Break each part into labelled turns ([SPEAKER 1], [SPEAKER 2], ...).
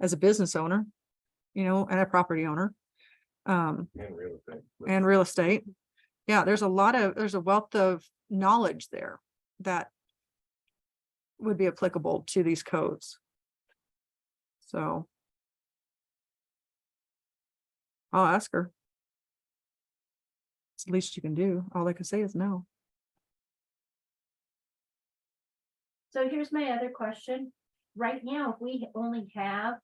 [SPEAKER 1] as a business owner, you know, and a property owner. Um,
[SPEAKER 2] And real estate.
[SPEAKER 1] and real estate. Yeah, there's a lot of, there's a wealth of knowledge there that would be applicable to these codes. So. I'll ask her. It's the least you can do. All I can say is no.
[SPEAKER 3] So here's my other question. Right now, if we only have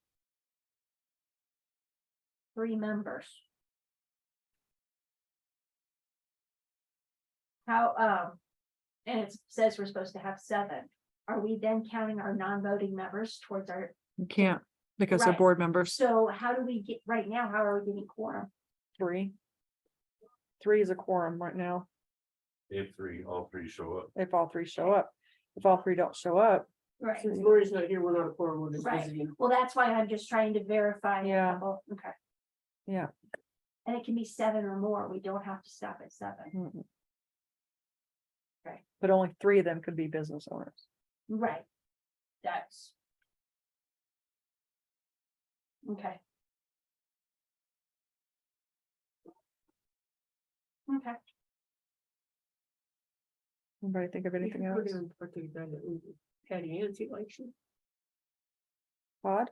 [SPEAKER 3] three members. How, um, and it says we're supposed to have seven. Are we then counting our non-voting members towards our,
[SPEAKER 1] You can't because they're
[SPEAKER 3] Right.
[SPEAKER 1] board members.
[SPEAKER 3] so how do we get, right now, how are we getting quorum?
[SPEAKER 4] Three. Three is a quorum right now,
[SPEAKER 2] If three, all three show up.
[SPEAKER 4] if all three show up. If all three don't show up,
[SPEAKER 3] Right.
[SPEAKER 5] Since Lori's not here, we're not a oh quorum, we're just
[SPEAKER 3] Right.
[SPEAKER 5] visiting.
[SPEAKER 3] Well, that's why I'm just trying to verify. a
[SPEAKER 4] Yeah.
[SPEAKER 3] couple- Okay.
[SPEAKER 4] Yeah.
[SPEAKER 3] And it can be seven or more. We don't have to stop at seven.
[SPEAKER 4] mm-mm.
[SPEAKER 3] Right.
[SPEAKER 4] Mm-hmm. but only three of them could be business owners.
[SPEAKER 3] Right. That's. Okay. Okay,
[SPEAKER 4] Anybody think of anything
[SPEAKER 5] We're
[SPEAKER 4] else?
[SPEAKER 5] gonna put the agenda in Patty Ann's election.
[SPEAKER 4] Todd?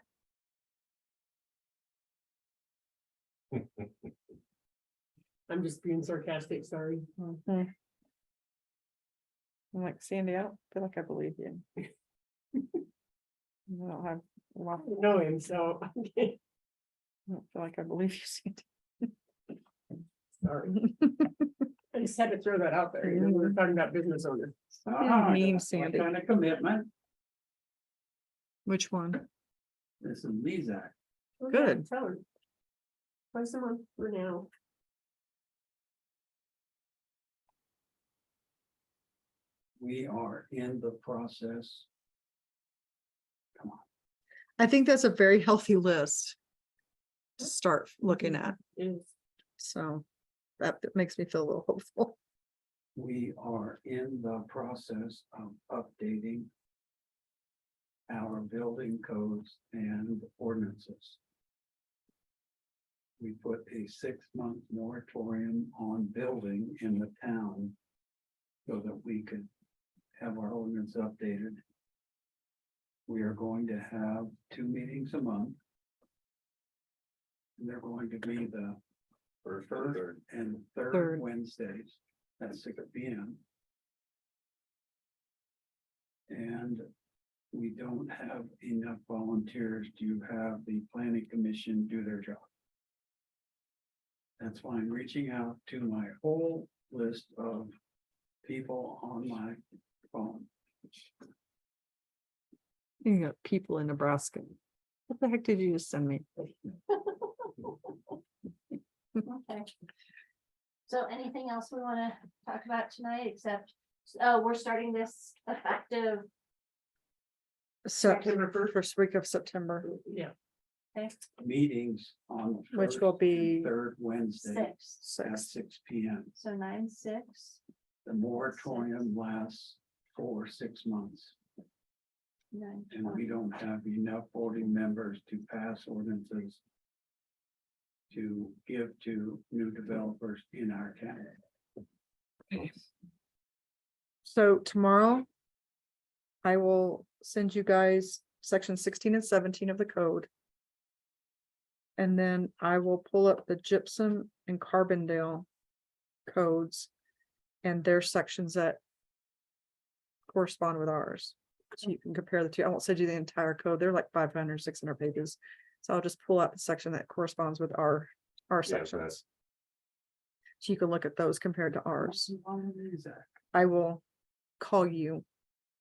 [SPEAKER 5] I'm just being sarcastic, sorry.
[SPEAKER 4] Mhm. I'm like Sandy, I don't feel like I believe you. I don't have, a lot-
[SPEAKER 5] I don't Know him, so.
[SPEAKER 4] I don't feel like I believe you, Sandy.
[SPEAKER 5] Sorry. I just had to throw that out there, you know, we we're talking about business owners.
[SPEAKER 1] Ah, mean, Sandy.
[SPEAKER 6] Kind of commitment,
[SPEAKER 1] Which one?
[SPEAKER 6] this is Mizak.
[SPEAKER 5] We're not
[SPEAKER 1] Good.
[SPEAKER 5] telling. Twice a month for now.
[SPEAKER 6] We are in the process.
[SPEAKER 1] I think that's a very healthy list. To start looking
[SPEAKER 4] Mm-hmm.
[SPEAKER 1] at,
[SPEAKER 5] Is,
[SPEAKER 1] so that makes me feel a little hopeful.
[SPEAKER 6] We are in the process of updating our building codes and ordinances. We put a six-month moratorium on building in the town so that we could have our ordinance updated. We are going to have two meetings a month. And they're going to be the
[SPEAKER 2] First or third.
[SPEAKER 6] and
[SPEAKER 1] Third.
[SPEAKER 6] third Wednesdays at six P M. And we don't have enough volunteers to have the planning commission do their job. That's why I'm reaching out to my whole list of people on my phone.
[SPEAKER 1] You got people in Nebraska. What the heck did you just send me?
[SPEAKER 3] okay. So anything else we wanna talk about tonight except, oh, we're starting this effective,
[SPEAKER 4] September first. First week of September,
[SPEAKER 5] yeah,
[SPEAKER 3] okay,
[SPEAKER 6] Meetings on. the
[SPEAKER 4] Which
[SPEAKER 6] first
[SPEAKER 4] will
[SPEAKER 6] and
[SPEAKER 4] be
[SPEAKER 6] Third Wednesday
[SPEAKER 3] six,
[SPEAKER 6] at
[SPEAKER 4] six,
[SPEAKER 6] six P M.
[SPEAKER 3] so nine, six.
[SPEAKER 6] The moratorium lasts for six months.
[SPEAKER 3] Nine,
[SPEAKER 6] And
[SPEAKER 3] twenty.
[SPEAKER 6] we don't have enough voting members to pass ordinances. To give to new developers in our town.
[SPEAKER 4] so tomorrow. I will send you guys section sixteen and seventeen of the code. And then I will pull up the gypsum and Carbondale. Codes. And their sections that. Correspond with ours, so you can compare the two, I won't send you the entire code, they're like 500, 600 pages. So I'll just pull out the section that corresponds with our, our
[SPEAKER 2] Yeah, that's-
[SPEAKER 4] sections. So you can look at those compared to ours.
[SPEAKER 6] Exactly.
[SPEAKER 4] I will call you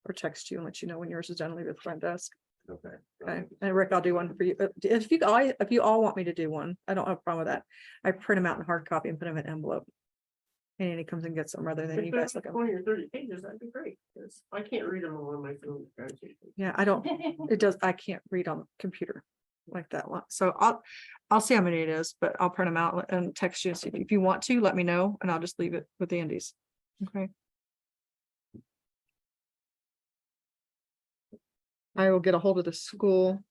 [SPEAKER 4] or text you and let you know when yours is done, leave it at the front desk.
[SPEAKER 2] Okay.
[SPEAKER 4] Okay, and Rick, I'll do one for you. Uh, If you, I, if you all want me to do one, I don't have a problem with that. I print them out in hard copy and put them in an envelope. And he comes and gets them rather than you guys look at 'em.
[SPEAKER 5] twenty or thirty pages, that'd be great, 'cause I can't read them all on my phone.
[SPEAKER 4] Yeah, I don't, it does, I can't read on the computer like that one.
[SPEAKER 1] So I'll, I'll see how many it is, but I'll print them out and text you. So if- if you want to, let me know and I'll just leave it with the Indies. Okay,
[SPEAKER 4] I will get a hold of the school